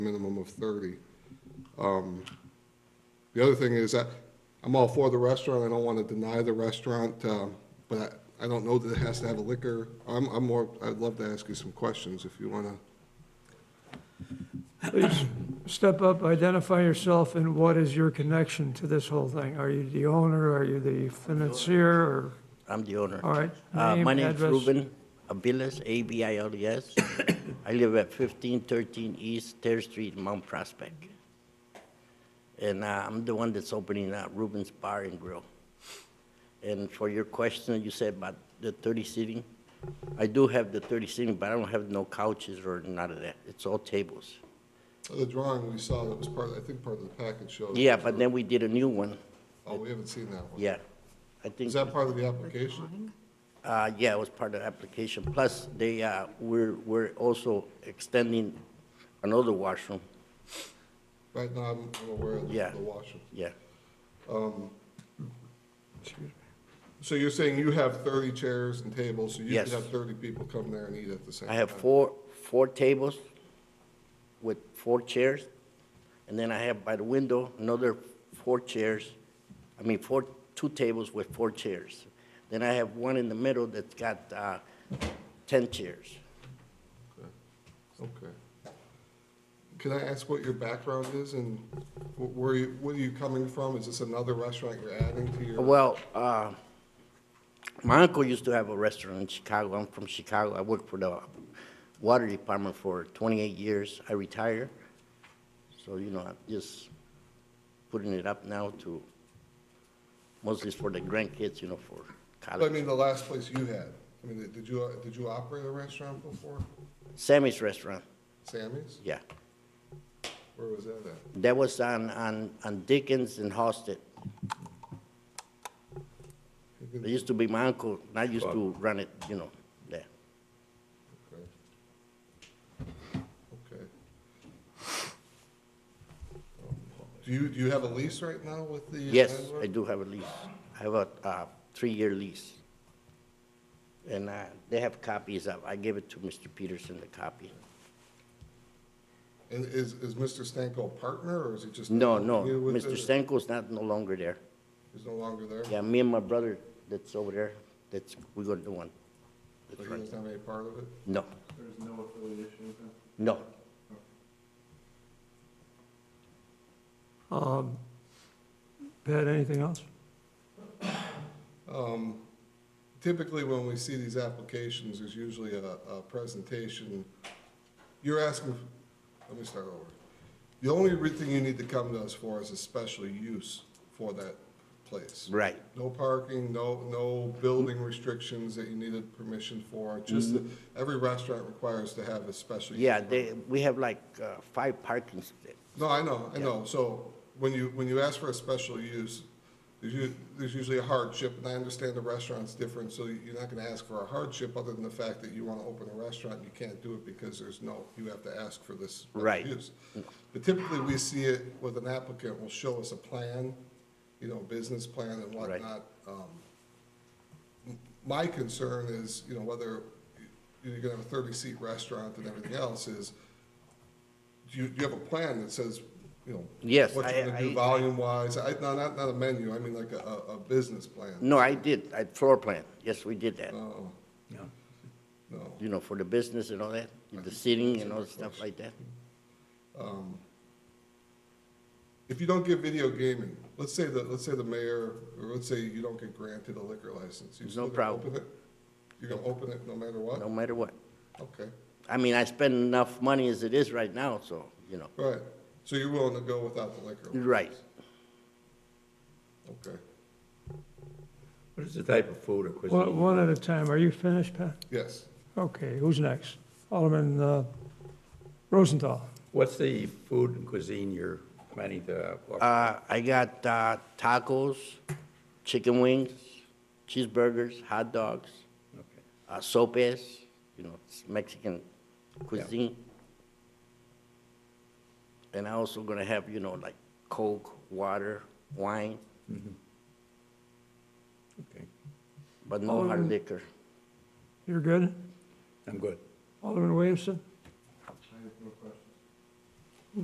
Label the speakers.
Speaker 1: minimum of 30. Um, The other thing is that I'm all for the restaurant, I don't want to deny the restaurant, um, but I- I don't know that it has to have a liquor. I'm, I'm more, I'd love to ask you some questions if you want to.
Speaker 2: Please step up, identify yourself, and what is your connection to this whole thing? Are you the owner, are you the financier, or,
Speaker 3: I'm the owner.
Speaker 2: all right?
Speaker 3: Uh, My name's
Speaker 2: address.
Speaker 3: Ruben Abiles, A-B-I-L-E-S. E I live at 1513 East Terrace Street, Mount Prospect. And uh, I'm the one that's opening uh, Ruben's Bar and Grill. And for your question, you said about the 30 seating. I do have the 30 seating, but I don't have no couches or none of that. It's all tables.
Speaker 1: The drawing we saw that was part, I think part of the package shows.
Speaker 3: Yeah, but then we did a new one.
Speaker 1: Oh, we haven't seen that one.
Speaker 3: Yeah. I think.
Speaker 1: Is that part of the application?
Speaker 3: Uh, yeah, it was part of the application. Plus, they, uh, we're, we're also extending another washroom.
Speaker 1: Right now, I'm I'm aware of
Speaker 3: Yeah.
Speaker 1: the washroom.
Speaker 3: Yeah,
Speaker 1: So you're saying you have 30 chairs and tables, so you
Speaker 3: Yes.
Speaker 1: could have 30 people come there and eat at the same
Speaker 3: I
Speaker 1: time?
Speaker 3: have four, four tables with four chairs. And then I have by the window, another four chairs. I mean, four, two tables with four chairs. Then I have one in the middle that's got, uh, ten chairs.
Speaker 1: Okay. Can I ask what your background is and wh- where you, where are you coming from? Is this another restaurant you're adding to your?
Speaker 3: Well, uh, my uncle used to have a restaurant in Chicago. I'm from Chicago. I worked for the water department for 28 years. I retired. So, you know, I'm just putting it up now to, mostly it's for the grandkids, you know, for
Speaker 1: I
Speaker 3: college.
Speaker 1: mean, the last place you had. I mean, did you, uh, did you operate a restaurant before?
Speaker 3: Sammy's Restaurant,
Speaker 1: Sammy's?
Speaker 3: yeah.
Speaker 1: Where was that at?
Speaker 3: That was on, on, on Dickens and Halsted. It used to be my uncle, and I used to run it, you know, there.
Speaker 1: Okay. Okay. Do you, do you have a lease right now with the?
Speaker 3: Yes,
Speaker 1: landlord?
Speaker 3: I do have a lease. I have a uh, three-year lease. And uh, they have copies of, I gave it to Mr. Peterson, the copy.
Speaker 1: And is, is Mr. Stanko a partner or is he just?
Speaker 3: No, no,
Speaker 1: You with
Speaker 3: Mr.
Speaker 1: it?
Speaker 3: Stanko's not, no longer there.
Speaker 1: He's no longer there?
Speaker 3: Yeah, me and my brother that's over there, that's, we're gonna do one.
Speaker 1: But he doesn't have any part of it?
Speaker 3: No,
Speaker 4: There's no affiliation with him?
Speaker 3: no.
Speaker 2: Um, Pat, anything else?
Speaker 1: Typically, when we see these applications, there's usually a, a presentation. You're asking, let me start over. The only re- thing you need to come to us for is a special use for that place.
Speaker 3: Right,
Speaker 1: No parking, no, no building restrictions that you needed permission for, just that every restaurant requires to have a special. use
Speaker 3: Mm-hmm. yeah,
Speaker 1: permit.
Speaker 3: they, we have like uh, five parking spaces.
Speaker 1: No, I know, I know. So when you, when you ask for a special use, there's u- there's usually a hardship, and I understand the restaurant's different, so you're not gonna ask for a hardship other than the fact that you wanna open a restaurant, and you can't do it because there's no, you have to ask for this. special
Speaker 3: Right.
Speaker 1: use. But typically, we see it with an applicant will show us a plan, you know, business plan and
Speaker 3: Right.
Speaker 1: whatnot. Um, my concern is, you know, whether you're gonna have a thirty-seat restaurant and everything else is, do you, do you have a plan that says, you know?
Speaker 3: Yes,
Speaker 1: What
Speaker 3: I-
Speaker 1: you're gonna do
Speaker 3: I-
Speaker 1: volume-wise, I, no, not, not a menu, I mean like a, a, a business plan.
Speaker 3: No, I did, I floor plan, yes, we did that,
Speaker 1: No, no.
Speaker 3: you know, for the business and all that, the seating and all the stuff like that.
Speaker 1: If you don't get video gaming, let's say that, let's say the mayor, or let's say you don't get granted a liquor license. you
Speaker 3: No
Speaker 1: still gonna
Speaker 3: problem.
Speaker 1: open it? You're gonna open it no matter what?
Speaker 3: no matter what.
Speaker 1: Okay,
Speaker 3: I mean, I spend enough money as it is right now, so, you know,
Speaker 1: right. So you're willing to go without the liquor? license?
Speaker 3: right.
Speaker 1: Okay,
Speaker 5: What is the type of food or
Speaker 2: One
Speaker 5: cuisine?
Speaker 2: one at a time, are you finished, Pat?
Speaker 1: yes.
Speaker 2: Okay, who's next? Alderman uh, Rosenthal.
Speaker 5: What's the food and cuisine you're planning to offer?
Speaker 3: Uh, I got uh, tacos, chicken wings, cheeseburgers, hot dogs,
Speaker 5: Okay.
Speaker 3: uh, sopes, you know, it's Mexican cuisine. And I also gonna have, you know, like Coke, water, wine,
Speaker 5: Okay,
Speaker 3: but no hard
Speaker 2: Alderman-
Speaker 3: liquor.
Speaker 2: You're good?
Speaker 5: I'm good.
Speaker 2: Alderman Williamson?
Speaker 4: I have no question.